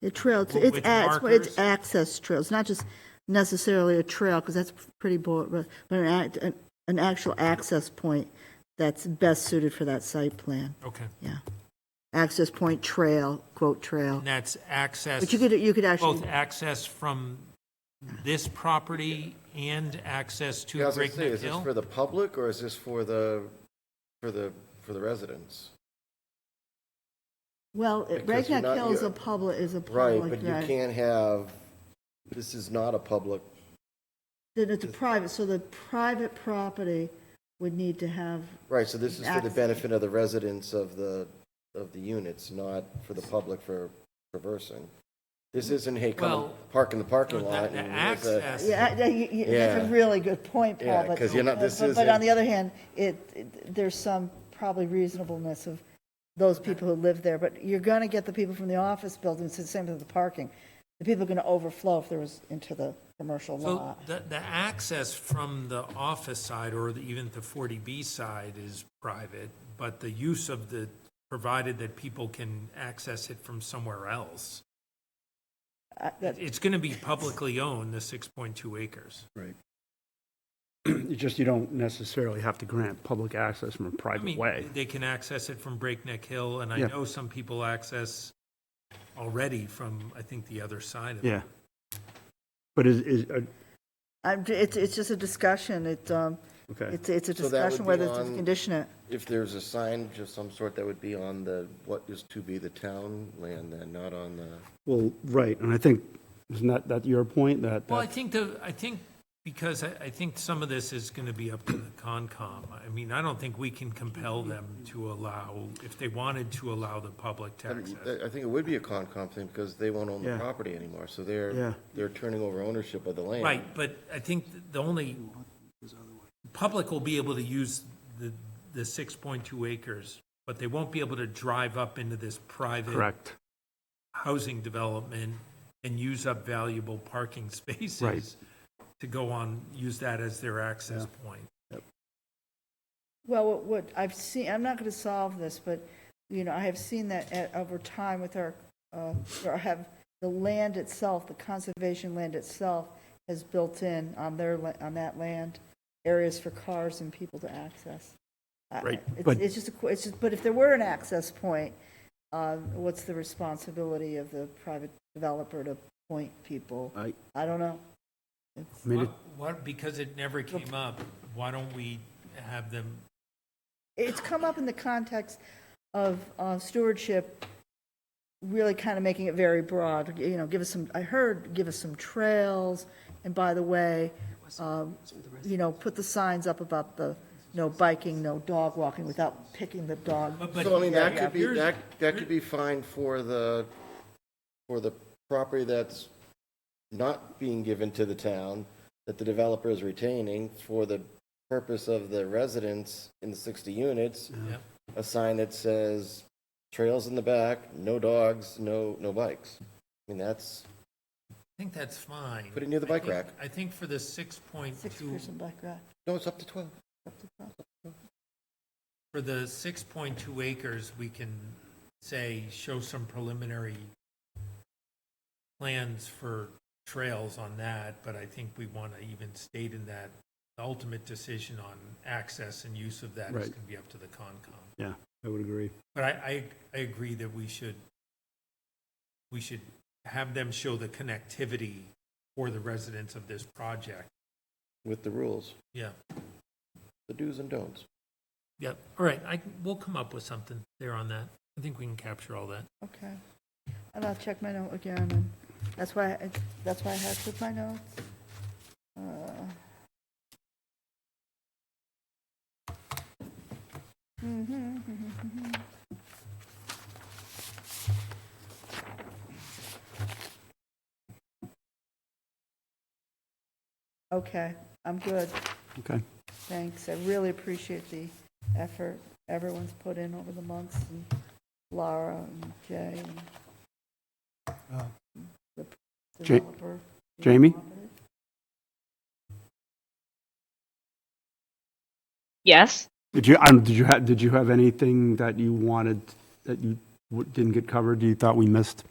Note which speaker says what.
Speaker 1: The trail, it's,
Speaker 2: W-
Speaker 1: it's,
Speaker 2: with
Speaker 1: a- it's, it's
Speaker 2: markers?
Speaker 1: access trails, not just necessarily a trail, because that's pretty broad, but but an act, an, an actual access point that's best suited for that site plan,
Speaker 2: Okay.
Speaker 1: yeah. Access point trail, quote, trail.
Speaker 2: And that's access,
Speaker 1: But you could, you could
Speaker 2: both
Speaker 1: actually,
Speaker 2: access from this property and access to
Speaker 3: Yeah, I was gonna say,
Speaker 2: Breakneck
Speaker 3: is this
Speaker 2: Hill?
Speaker 3: for the public or is this for the, for the, for the residents?
Speaker 1: well,
Speaker 3: because you're
Speaker 1: Breakneck
Speaker 3: not-
Speaker 1: Hill is a
Speaker 3: you're-
Speaker 1: public, is a
Speaker 3: Right,
Speaker 1: public
Speaker 3: but you
Speaker 1: drive.
Speaker 3: can't have, this is not a public,
Speaker 1: Then it's a private, so the private property would need to have,
Speaker 3: right, so this is for the
Speaker 1: Access.
Speaker 3: benefit of the residents of the, of the units, not for the public for traversing. This isn't, hey, come
Speaker 2: Mm-hmm. Well,
Speaker 3: park in the parking
Speaker 2: The-
Speaker 3: lot.
Speaker 2: The
Speaker 3: and there's a-
Speaker 2: access,
Speaker 1: yeah, I- yeah, you- you- that's
Speaker 3: Yeah.
Speaker 1: a really good point, Paul,
Speaker 3: Yeah,
Speaker 1: but.
Speaker 3: 'cause you're not- this
Speaker 1: but- But
Speaker 3: isn't-
Speaker 1: on the other hand, it, it- there's some probably reasonableness of those people who live there, but you're gonna get the people from the office buildings, it's the same with the parking. The people are gonna overflow if there was into the commercial
Speaker 2: so
Speaker 1: lot.
Speaker 2: the, the access from the office side or the- even the 40B side is private, but the use of the, provided that people can access it from somewhere else.
Speaker 1: I- that-
Speaker 2: It's going to be publicly owned, the 6.2 acres.
Speaker 4: Right. It's just you don't necessarily have to grant public access from a
Speaker 2: I
Speaker 4: private
Speaker 2: mean,
Speaker 4: way.
Speaker 2: They can access it from Breakneck Hill, and I
Speaker 4: Yeah.
Speaker 2: know some people access already from, I think, the other side of it.
Speaker 4: Yeah. But is, is, uh,
Speaker 1: I'm, it's, it's just a discussion, it, um,
Speaker 4: okay,
Speaker 1: it's, it's a
Speaker 3: So that would
Speaker 1: discussion
Speaker 3: be
Speaker 1: whether to
Speaker 3: on-
Speaker 1: condition it.
Speaker 3: If there's a sign of some sort that would be on the, what is to be the town land then, not on the.
Speaker 4: well, right, and I think, isn't that, that your point, that,
Speaker 2: Well, I
Speaker 4: that-
Speaker 2: think the, I think, because I, I think some of this is going to be up to the Concom. I mean, I don't think we can compel them to allow, if they wanted to allow the public to
Speaker 3: I
Speaker 2: access.
Speaker 3: don't- I think it would be a Concom thing because they won't own the
Speaker 4: Yeah.
Speaker 3: property anymore, so
Speaker 4: Yeah.
Speaker 3: they're, they're turning over ownership of the land.
Speaker 2: Right, but I think the only, public will be able to use the, the 6.2 acres, but they won't be able to drive up into this private.
Speaker 4: correct,
Speaker 2: housing development and use up valuable parking spaces to go on, use that as their access point.
Speaker 1: Well, what- what I've seen, I'm not going to solve this, but, you know, I have seen that at- over time with our, uh, or have the land itself, the conservation land itself has built in on their, la- on that land, areas for cars and people to access. I-
Speaker 4: Right,
Speaker 1: it's-
Speaker 4: but-
Speaker 1: It's just, a qu- it's just, but if there were an access point, uh, what's the responsibility of the private developer to point people?
Speaker 4: I,
Speaker 1: I don't know.
Speaker 4: I mean, it-
Speaker 2: What, because it never came up, why don't we have them,
Speaker 1: it's come up in the context of uh, stewardship really kind of making it very broad you know give us some i heard give us some trails and by the way um, you know put the signs up about the no biking no dog walking without picking the dog
Speaker 2: but,
Speaker 3: So I mean, that
Speaker 1: yeah,
Speaker 3: could be,
Speaker 2: here's-
Speaker 3: that, that could be fine for the, for the property that's not being given to the town, that the developer is retaining for the purpose of the residents in the 60 units,
Speaker 2: yeah.
Speaker 3: a sign that says trails in the back, no dogs, no, no bikes. I mean, that's,
Speaker 2: I think that's fine.
Speaker 3: Put it near the bike
Speaker 2: I think-
Speaker 3: rack.
Speaker 2: I think for the six point
Speaker 1: six
Speaker 2: two,
Speaker 1: person bike ride
Speaker 3: no, it's up to 12.
Speaker 1: up to twelve.
Speaker 2: for the six point two acres, we can say, show some preliminary plans for trails on that, but I think we want to even state in that, the ultimate decision on access and use of that is
Speaker 4: Right.
Speaker 2: going to be up to the Concom.
Speaker 4: yeah, I would agree.
Speaker 2: But I, I, I agree that we should, we should have them show the connectivity for the residents of this project.
Speaker 3: With the rules,
Speaker 2: Yeah,
Speaker 3: the do's and don'ts.
Speaker 2: yep, all right, I, can- we'll come up with something there on that. I think we can capture all that.
Speaker 1: okay and i'll check my note again and that's why I, that's why i had to my notes uh, mm-hmm, Okay, I'm good,
Speaker 4: Okay,
Speaker 1: thanks. I really appreciate the effort everyone's put in over the months, and Laura and Jay and the
Speaker 4: Uh, Ja-
Speaker 1: developer.
Speaker 4: Jamie?
Speaker 5: Yes.
Speaker 4: did you, um, did you have, did you have anything that you wanted, that you w- didn't get covered, you thought we missed?